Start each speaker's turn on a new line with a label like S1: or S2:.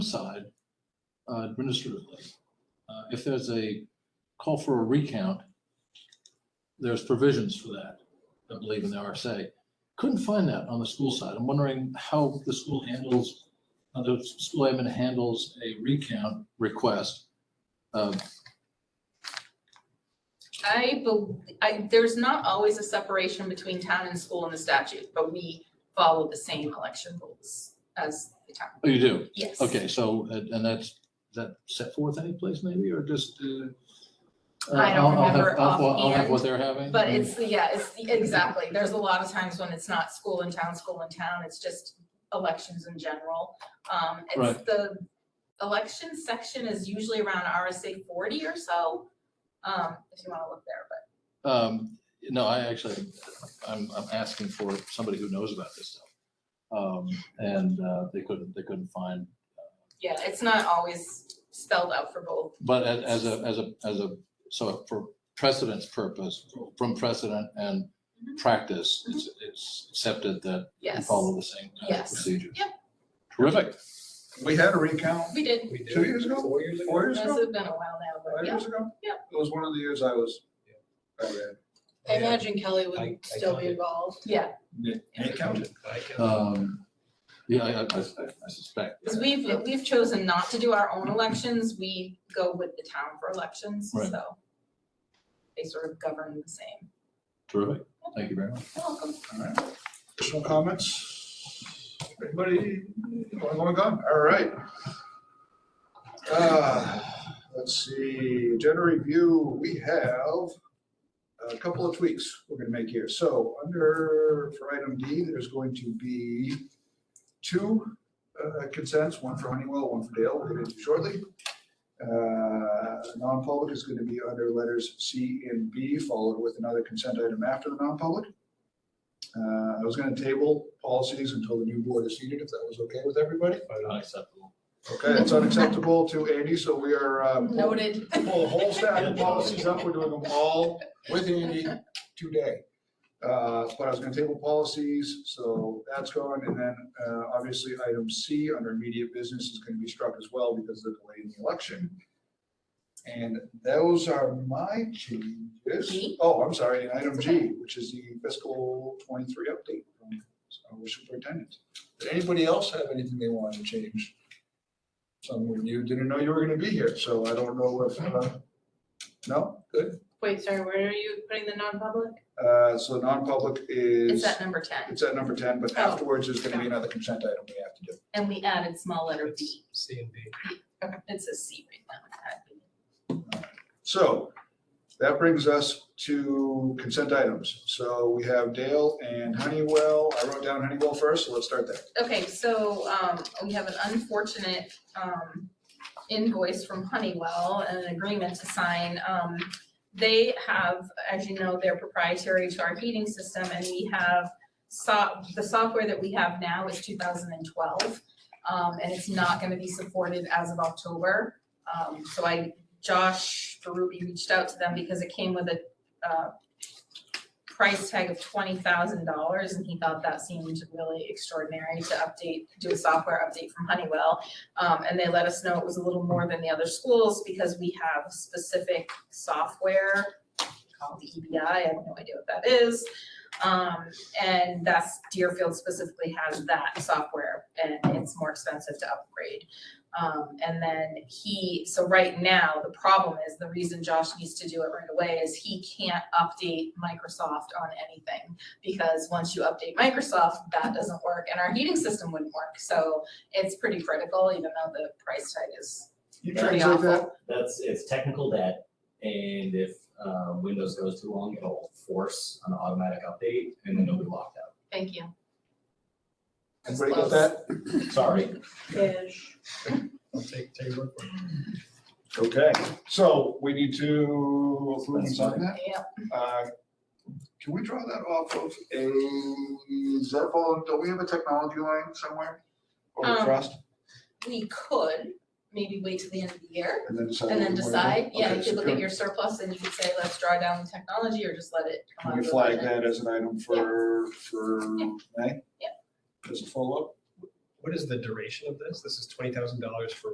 S1: side uh, administratively. Uh, If there's a call for a recount, there's provisions for that, I believe in the RSA. Couldn't find that on the school side. I'm wondering how the school handles, how the school admin handles a recount request. Um,
S2: I, bel- I, there's not always a separation between town and school in the statute, but we follow the same election rules as the town.
S1: Oh, you do?
S2: Yes.
S1: Okay, so, and and that's, is that set forth any place maybe, or just? uh, uh,
S2: I don't
S1: I'll- I'll have-
S2: remember
S1: I'll- I'll have what
S2: offhand,
S1: they're having?
S2: But
S1: Mm.
S2: it's, yeah, it's, exactly, there's a lot of times when it's not school in town, school in town, it's just elections in general. Um, it's
S1: Right.
S2: the election section is usually around RSA forty or so, um, if you wanna look there, but.
S1: Um, no, I actually, I'm, I'm asking for somebody who knows about this stuff. Um, and, uh, they couldn't, they couldn't find,
S2: Yeah, it's not always spelled out for both.
S1: but a- as a, as a, as a, so for precedence purpose, from precedent and
S2: Mhm.
S1: practice, it's, it's accepted that we
S2: Mm-hmm. Yes,
S1: follow the same kind of
S2: Yes.
S1: procedure.
S2: Yep.
S1: Terrific.
S3: We had a recount
S2: we did.
S4: We did.
S3: Two years ago?
S4: Four years ago?
S3: four years
S2: This
S3: ago,
S2: has been a while now, but
S3: five
S2: yeah.
S3: years ago.
S2: yeah.
S3: It was one of the years I was, I read.
S5: I
S4: Yeah.
S5: imagine
S4: I-
S5: Kelly
S4: I
S5: would still be
S4: counted.
S5: involved.
S3: I counted.
S4: I counted.
S1: Um, yeah, I, I, I- I suspect.
S2: Because we've, we've chosen not to do our own elections, we go with the town for elections,
S1: Right.
S2: so. They sort of govern the same.
S1: Terrific. Thank you very much.
S2: You're welcome.
S3: Additional comments? Anybody, anyone want to go? All right. Uh, Let's see, agenda review, we have a couple of tweaks we're going to make here. So under, for item D, there's going to be two uh, consents, one for Honeywell, one for Dale, we'll get into shortly. Uh, Non-public is going to be under letters C and B, followed with another consent item after the non-public. Uh, I was gonna table policies until the new board is seated, if that was okay with everybody.
S1: Unacceptable.
S3: Okay, it's unacceptable to Andy, so we are, um, pull
S5: Noted.
S3: pull the whole stack of policies up, we're doing them all with Andy today. Uh, but I was gonna table policies, so that's going, and then, uh, obviously, item C under immediate business is gonna be struck as well because of the delay in the election. And those are my changes.
S2: G?
S3: Oh, I'm sorry, and item
S2: It's
S3: G, which is the fiscal twenty-three update from our superintendent. Did anybody else have anything they wanted to change? Some of you didn't know you were gonna be here, so I don't know if, uh, no, good.
S5: Wait, sorry, where are you putting the non-public?
S3: Uh, so non-public
S2: It's
S3: is,
S2: at number ten,
S3: it's at number ten, but
S2: Oh.
S3: afterwards, there's gonna be another consent item we have to do.
S2: and we added small letter B.
S4: C and D.
S2: It's a C right now.
S3: So that brings us to consent items. So we have Dale and Honeywell. I wrote down Honeywell first, so let's start there.
S2: Okay, so, um, we have an unfortunate, um, invoice from Honeywell and an agreement to sign. Um, they have, as you know, they're proprietary to our heating system and we have so, the software that we have now is two thousand and twelve. Um, and it's not gonna be supported as of October. Um, so I, Josh Berube reached out to them because it came with a, uh, price tag of twenty thousand dollars and he thought that seemed really extraordinary to update, do a software update from Honeywell. Um, and they let us know it was a little more than the other schools because we have specific software called the EBI, I have no idea what that is. Um, and that's Deerfield specifically has that software and it's more expensive to upgrade. Um, and then he, so right now, the problem is, the reason Josh needs to do it right away is he can't update Microsoft on anything. Because once you update Microsoft,
S3: Mm-hmm.
S2: that doesn't work and our heating system wouldn't work, so it's pretty critical, even though the price tag is
S3: You
S2: pretty
S3: translate
S2: awful.
S3: that?
S6: That's, it's technical debt, and if um, Windows goes too long, it'll force an automatic update, and then you'll be locked out.
S2: Thank you.
S3: Everybody got that?
S6: Sorry.
S5: Ish.
S4: I'll take, take your word for it.
S3: Okay, so we need to approve and sign that.
S2: Yep,
S3: Uh, Can we draw that off of a, is that all, don't we have a technology line somewhere? Or a
S2: Um,
S3: trust,
S2: we could maybe wait till the end of the year
S3: and then decide.
S2: and
S3: what
S2: then
S3: we wanna do?
S2: decide, yeah,
S3: Oh, Okay,
S2: you
S3: so
S2: could look at
S3: can-
S2: your surplus and you could say, let's draw down the technology or just let it come
S3: Can
S2: out
S3: we
S2: of the
S3: flag
S2: budget.
S3: that as an item for, for May?
S2: Yeah.
S3: As a follow-up?
S6: what is the duration of this? This is twenty thousand dollars for